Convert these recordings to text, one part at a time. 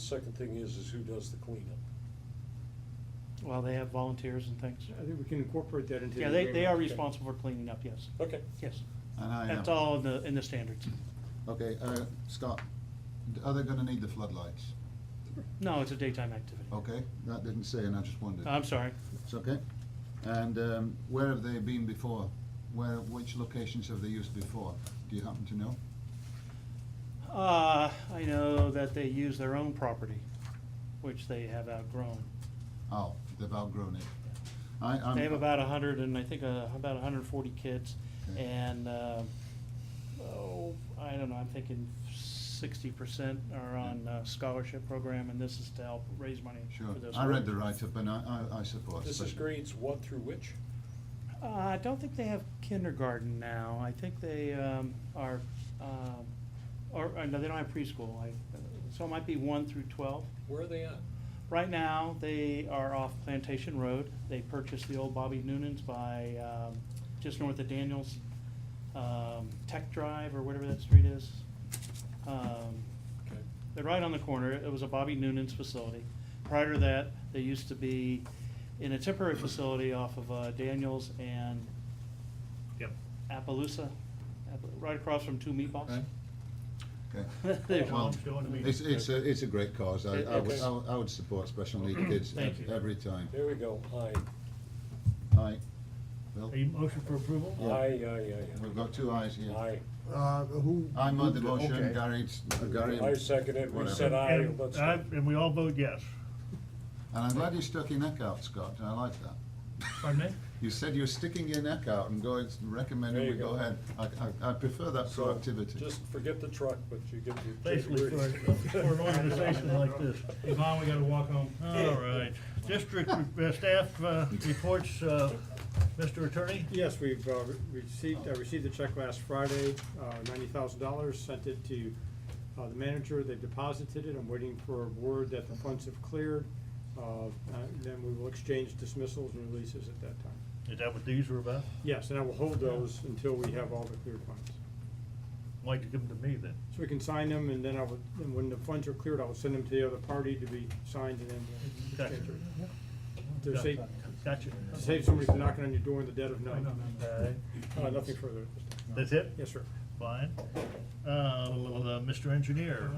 second thing is, is who does the cleanup? Well, they have volunteers and things. I think we can incorporate that into the Yeah, they, they are agreement. responsible for cleaning up, yes, Okay. yes. And I That's have- all in the, in the standards. Okay, uh, Scott, are they gonna need the floodlights? No, it's a daytime activity. Okay, that didn't say, and I just wondered. I'm sorry. It's okay. And um, where have they been before? Where, which locations have they used before? Do you happen to know? Uh, I know that they use their own property, which they have outgrown. Oh, they've outgrown it. I, I'm. They have about a hundred and, I think, uh, about hundred and forty kids, Okay. and, um, oh, I don't know, I'm thinking sixty percent are on uh, scholarship program, and this is to help raise money Sure, for those. I read the programs. write-up and I, I, I support. This is but- grades one through which? Uh, I don't think they have kindergarten now. I think they um, are, um, or, uh, no, they don't have preschool. I- So it might be one through 12. Where are they at? Right now, they are off Plantation Road. They purchased the old Bobby Noonan's by, um, just north of Daniels, um, Tech Drive or whatever that street is. Um, Okay. they're right on the corner. It was a Bobby Noonan's facility. Prior to that, they used to be in a temporary facility off of uh, Daniels and Yep. Appaloosa, App- right across from Two Meatballs. Okay. Okay. They're Well, gone. Going to meet. It's, it's, a it's a great cause. I, It- I would, it's- I would- I would support special needs kids Thank you. every time. There we go. Aye. Aye. Bill? Are you motion for approval? Aye, Yeah. aye, We've got two ayes aye, here. aye. Aye. Uh, who? I made the moved it? motion, Okay. Gary, Gary. I second it. We whatever. said aye. And Let's. I- and we all vote yes. And I'm glad you stuck your neck out, Scott, I like that. Pardon me? You said you're sticking your neck out and going, recommending There we you go go. ahead. I, I, I prefer that So, proactivity. Just forget the truck, but you get your. Basically, for, for an organization like this. Yvonne, we gotta walk home. All right. District uh, staff uh, reports, uh, Mr. Attorney? Yes, we've uh, re- received, I received the check last Friday, uh, ninety thousand dollars, sent it to uh, the manager, they've deposited it, I'm waiting for word that the funds have cleared. Uh, and Then we will exchange dismissals and releases at that time. Is that what these were about? Yes, and I will hold those until we have all the cleared funds. Why would you give them to me then? So we can sign them, and then I would, and when the funds are cleared, I will send them to the other party to be signed, and then we'll Gotcha. exchange them. To save, Gotcha. to save somebody from knocking on your door in the dead of night. All right. Uh, Nothing further. at this time. That's it? Yes, sir. Fine. Uh, Mr. Engineer?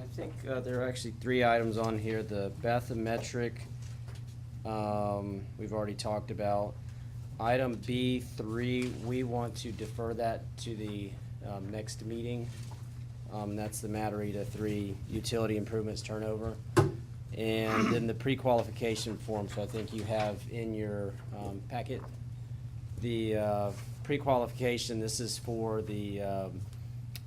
I think uh, there are actually three items on here, the bathymetric, um, we've already talked about. Item B three, we want to defer that to the, um, next meeting. Um, that's the Matarita three utility improvements turnover. And then the pre-qualification form, so I think you have in your, um, packet. The, uh, pre-qualification, this is for the, um,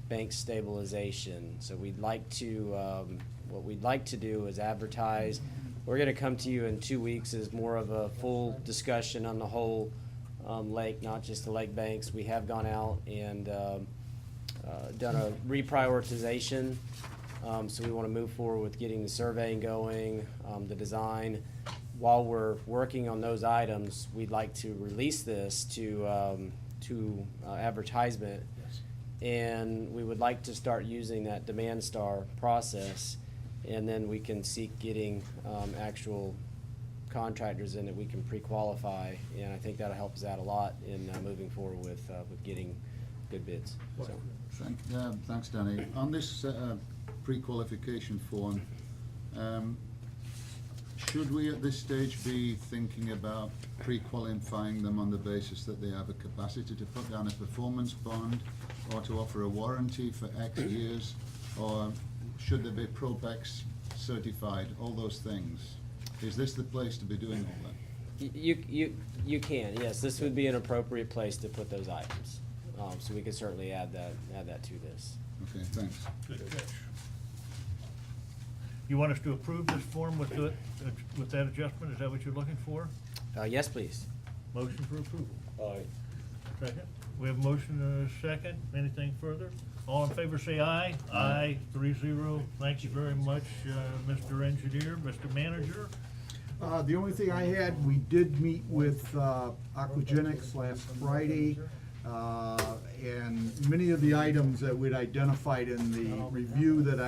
bank stabilization. So we'd like to, um, what we'd like to do is advertise. We're gonna come to you in two weeks as more of a full discussion on the whole, um, lake, not just the lake banks. We have gone out and, um, uh, done a reprioritization. Um, so we wanna move forward with getting the surveying going, um, the design. While we're working on those items, we'd like to release this to, um, to uh, advertisement and we would like to start using that demand star process, and then we can seek getting um, actual contractors in that we can pre-qualify, and I think that'll help us out a lot in uh, moving forward with, uh, with getting good bids. So, Thank, uh, thanks, Danny. On this, uh, pre-qualification form, um, should we at this stage be thinking about pre-qualifying them on the basis that they have a capacity to put down a performance bond or to offer a warranty for X years? Or should they be Probex certified, all those things? Is this the place to be doing all that? y- You, you, you can, yes, this would be an appropriate place to put those items, Um, so we could certainly add that, add that to this. Okay, thanks. Good catch. You want us to approve this form with the, with that adjustment? Is that what you're looking for? Uh, Yes, please. Motion for approval. Aye. Second. We have a motion and a second. Anything further? All in favor, say aye. Aye, three zero. Thank you very much, uh, Mr. Engineer, Mr. Manager. Uh, the only thing I had, we did meet with, uh, Aquagenics last Friday. Uh, and many of the items that we'd identified in the review that I.